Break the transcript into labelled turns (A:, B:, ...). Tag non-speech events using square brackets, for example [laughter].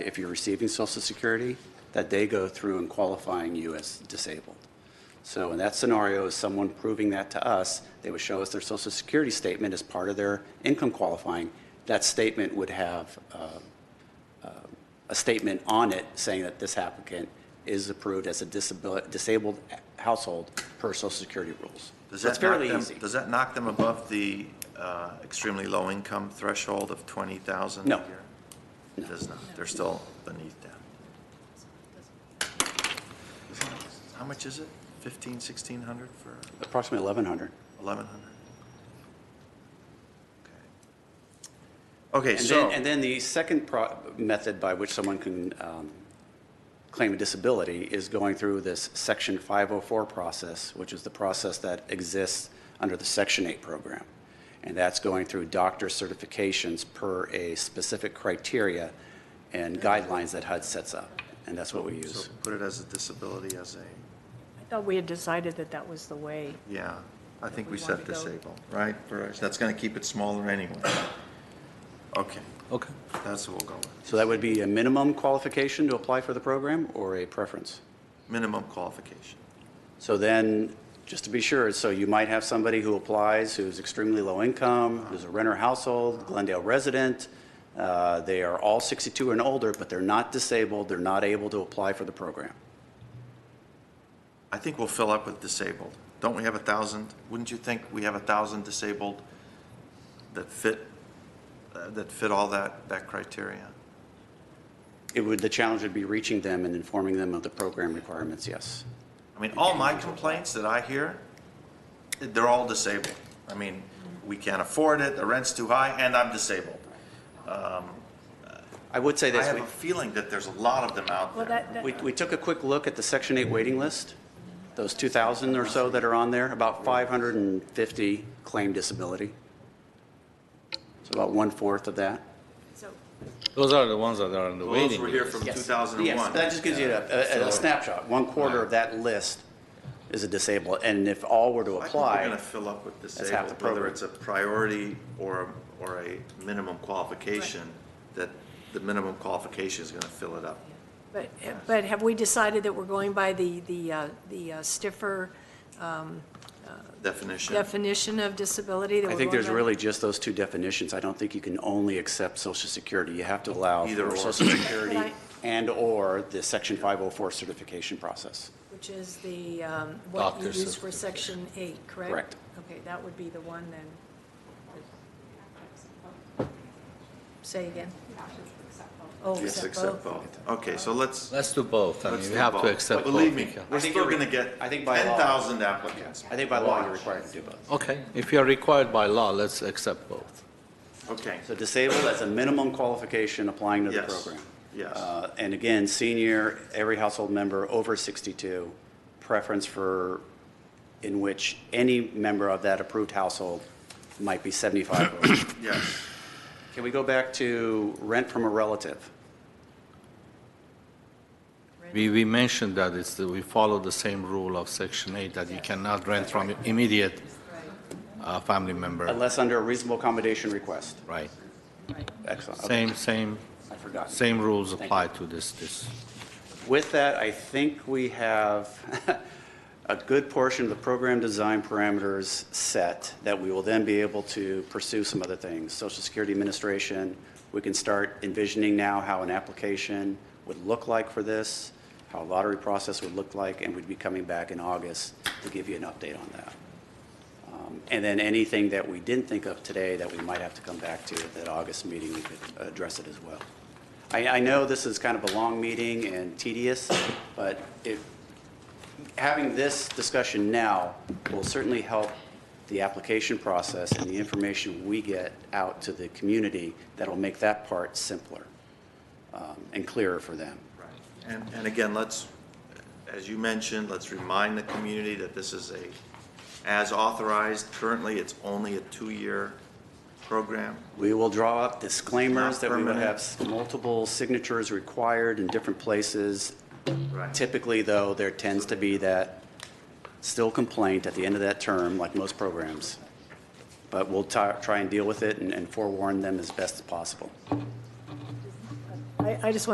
A: if you're receiving Social Security, that they go through and qualifying you as disabled. So in that scenario, is someone proving that to us, they would show us their Social Security statement as part of their income qualifying. That statement would have uh, uh, a statement on it saying that this applicant is approved as a disabil- disabled household per Social Security rules.
B: Does
A: So it's
B: that knock
A: fairly
B: them-
A: easy.
B: Does that knock them above the uh, extremely low-income threshold of 20,000
A: No.
B: a year? It does not. They're still beneath that. How much is it? 15, 1,600 for
A: Approximately 1,100.
B: 1,100? Okay. Okay,
A: And
B: so,
A: then, and then the second pro- method by which someone can um, claim a disability is going through this Section 504 process, which is the process that exists under the Section 8 program. And that's going through doctor certifications per a specific criteria and guidelines that HUD sets up. And that's what we
B: so
A: use.
B: put it as a disability, as a,
C: I thought we had decided that that was the way.
B: yeah, I think we
C: We want
B: said
C: to go-
B: disabled, right? Verizon. That's going to keep it smaller anyway. Okay,
D: Okay.
B: that's what we'll go with.
A: So that would be a minimum qualification to apply for the program or a preference?
B: Minimum qualification.
A: So then, just to be sure, so you might have somebody who applies who's extremely low income, who's a renter household, Glendale resident. uh, They are all 62 and older, but they're not disabled, they're not able to apply for the program.
B: I think we'll fill up with disabled. Don't we have a thousand? Wouldn't you think we have a thousand disabled that fit, uh, that fit all that, that criteria?
A: It would, the challenge would be reaching them and informing them of the program requirements, yes.
B: I mean, all my complaints that I hear, they're all disabled. I mean, we can't afford it, the rent's too high, and I'm disabled.
A: I would say
B: I
A: this,
B: have
A: we-
B: a feeling that there's a lot of them out
C: Well,
B: there.
C: that, that-
A: we we took a quick look at the Section 8 waiting list, those 2,000 or so that are on there, about 550 claim disability. So about one-fourth of that.
C: so-
D: Those are the ones that are on the
B: Those
D: waiting
B: were here
D: list.
B: from
A: Yes,
B: 2001.
A: that just gives you a- a a snapshot. One quarter of that list is a disabled, and if all were to
B: I think we're gonna
A: apply,
B: fill up with
A: half the
B: disabled, whether
A: program.
B: it's a priority or, or a minimum qualification, that the minimum qualification is gonna fill it up.
C: but, but have we decided that we're going by the, the, uh, the uh, stiffer
B: Definition.
C: definition of disability? that
A: I
C: we're
A: think
C: going
A: there's
C: by?
A: really just those two definitions. I don't think you can only accept Social Security. You have to allow
B: Either
A: for
B: or.
A: Social
B: [laughs]
A: Security
C: Right.
A: and/or the Section 504 certification process.
C: Which is the, um, what you
D: Doctor's
C: use for section
D: certification.
C: eight, correct?
A: Correct.
C: Okay, that would be the one then. Say again? Oh,
B: Yes,
C: except
B: accept
C: both.
B: both. Okay, so let's,
D: Let's do both. I
B: let's
D: mean,
B: do
D: we have
B: both.
D: to accept both.
B: Believe me,
D: Mika.
B: we're
A: I think
B: still
A: you're-
B: gonna get
A: I think
B: ten
A: by law-
B: thousand applicants.
A: I think by law, you're
B: Watch.
A: required to do both.
D: Okay, if you're required by law, let's accept both.
B: Okay,
A: So disabled, that's a minimum qualification applying to the
B: Yes.
A: program.
B: Yes.
A: Uh, And again, senior, every household member over 62, preference for, in which any member of that approved household might be 75 or older.
B: yes,
A: [coughs] Can we go back to rent from a relative?
D: We, we mentioned that it's, that we follow the same rule of section eight, that you cannot rent from immediate uh, family member,
A: Unless under a reasonable accommodation request.
D: right?
A: Excellent. Okay,
D: Same, same,
A: I forgot.
D: same rules apply to this, this.
A: With that, I think we have [laughs] a good portion of the program design parameters set that we will then be able to pursue some other things. Social Security Administration, we can start envisioning now how an application would look like for this, how a lottery process would look like, and we'd be coming back in August to give you an update on that. Um, And then anything that we didn't think of today that we might have to come back to at that August meeting, we could address it as well. I, I know this is kind of a long meeting and tedious, but if, having this discussion now will certainly help the application process and the information we get out to the community that'll make that part simpler um, and clearer for them.
B: right. And, and again, let's, as you mentioned, let's remind the community that this is a, as authorized, currently it's only a two-year program.
A: We will draw up disclaimers that we would
B: Permanent.
A: have s- multiple signatures required in different places.
B: Right.
A: Typically, though, there tends to be that still complaint at the end of that term, like most programs. But we'll ti- try and deal with it and- and forewarn them as best as possible.
C: I, I just want